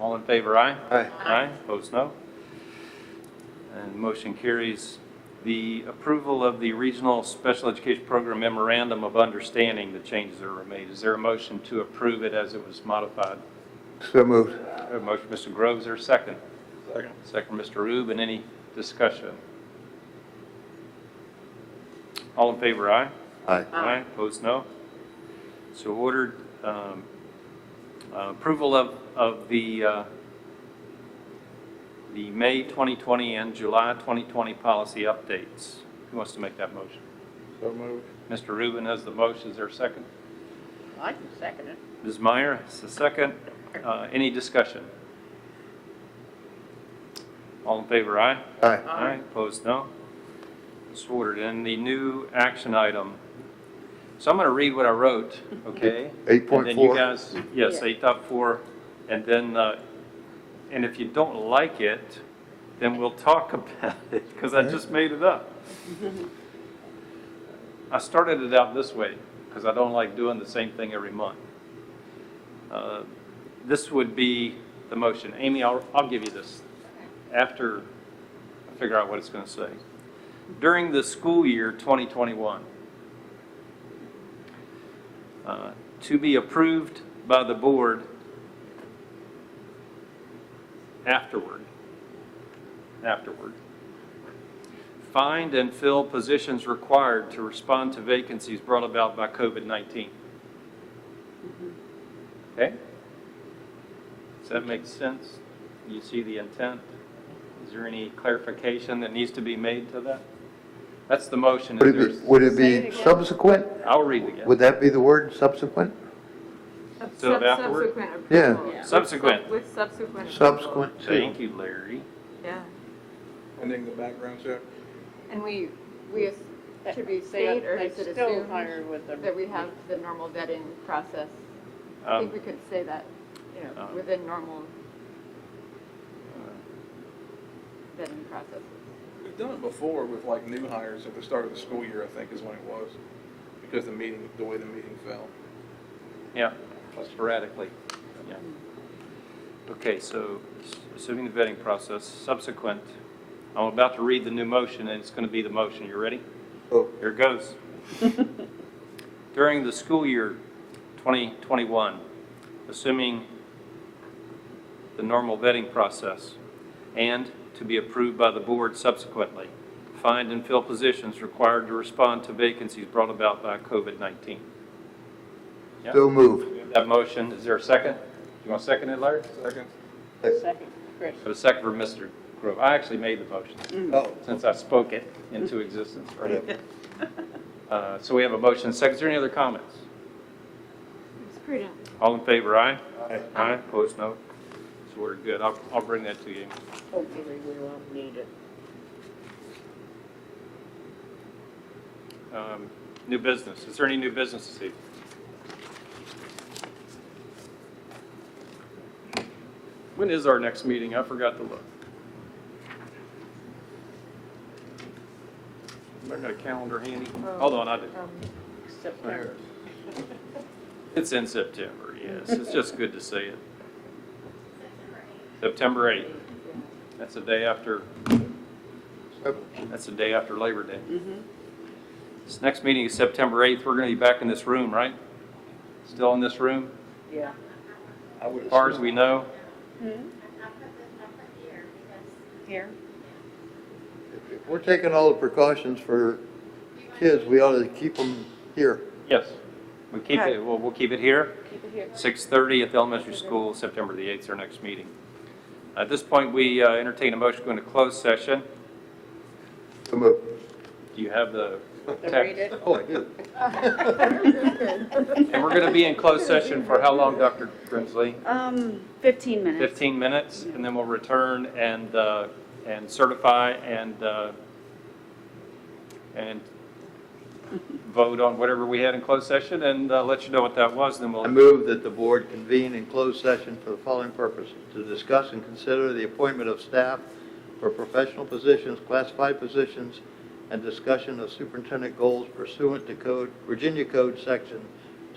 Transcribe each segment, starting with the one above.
All in favor, aye? Aye. Aye, opposed, no. And motion carries. The approval of the Regional Special Education Program Memorandum of Understanding, the changes that were made. Is there a motion to approve it as it was modified? So moved. A motion, Mr. Groves, or second? Second. Second, Mr. Rube, and any discussion? All in favor, aye? Aye. Aye. Opposed, no. So ordered, um, uh, approval of, of the, uh, the May 2020 and July 2020 policy updates. Who wants to make that motion? So moved. Mr. Rubin has the motion, is there a second? I can second it. Ms. Meyer has the second. Uh, Any discussion? All in favor, aye? Aye. Aye. Opposed, no. It's ordered. And the new action item, so I'm going to read what I wrote, okay? And then you 8.4. guys, yes, Yeah. eight dot four, and then, uh, and if you don't like it, then we'll talk about it, because I just made it up. I started it out this way, because I don't like doing the same thing every month. Uh, This would be the motion. Amy, I'll, I'll give you this after I figure out what it's going to say. During the school year 2021, uh, to be approved by the board afterward, afterward. Find and fill positions required to respond to vacancies brought about by COVID-19. Okay? Does that make sense? You see the intent? Is there any clarification that needs to be made to that? That's the motion. Is Would it there's- be, would it Say it be again. subsequent? I'll read it again. Would that be the word, subsequent? Sub- So sub- afterward? Subsequent Yeah. approval. Yeah. Subsequent. With subsequent. approval. Subsequent to. Thank you, Larry. Yeah, Ending the background check? and we, we, should we state or is it They still assumed hire with the. that we have the normal vetting process? I Um, think we could say that, you know, um, within normal uh, vetting processes. We've done it before with like new hires at the start of the school year, I think is when it was, because the meeting, the way the meeting fell. Yeah, sporadically, yeah. Okay, so assuming the vetting process, subsequent, I'm about to read the new motion, and it's going to be the motion. You ready? Oh. Here goes. During the school year 2021, assuming the normal vetting process, and to be approved by the board subsequently, find and fill positions required to respond to vacancies brought about by COVID-19. Yeah. So moved. We have That motion, is there a second? You want to second it, Larry? Second? Second, Chris. Have a second for Mr. Grove. I actually made the motion, Oh. since I spoke it into existence, right? Uh, So we have a motion, second, is there any other comments? It's prudent. All in favor, aye? Aye. Aye, opposed, no? So we're good, I'll, I'll bring that to you. Hopefully we won't need it. Um, New business, is there any new business this evening? When is our next meeting? I forgot to look. I got a calendar handy. Hold on, I do. September. It's in September, yes. It's just good to see it. September 8th. That's the day after, that's the day after Labor Day. Mm-hmm. This next meeting is September 8th. We're going to be back in this room, right? Still in this room? Yeah. As far as we know, Here? If we're taking all the precautions for kids, we ought to keep them here. yes. We keep it, well, we'll keep it here. Keep it here. 6:30 at the elementary school, September the 8th, is our next meeting. At this point, we uh, entertain a motion to go into closed session. So moved. Do you have the To text? read it? Oh, I do. And we're going to be in closed session for how long, Dr. Grimsley? Um, 15 minutes. 15 minutes, and then we'll return and, uh, and certify and, uh, and vote on whatever we had in closed session and uh, let you know what that was, then I we'll, move that the board convene in closed session for the following purposes: to discuss and consider the appointment of staff for professional positions, classified positions, and discussion of superintendent goals pursuant to Code, Virginia Code Section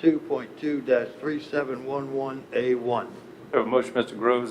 2.2-3711A1. Have a motion, Mr. Groves,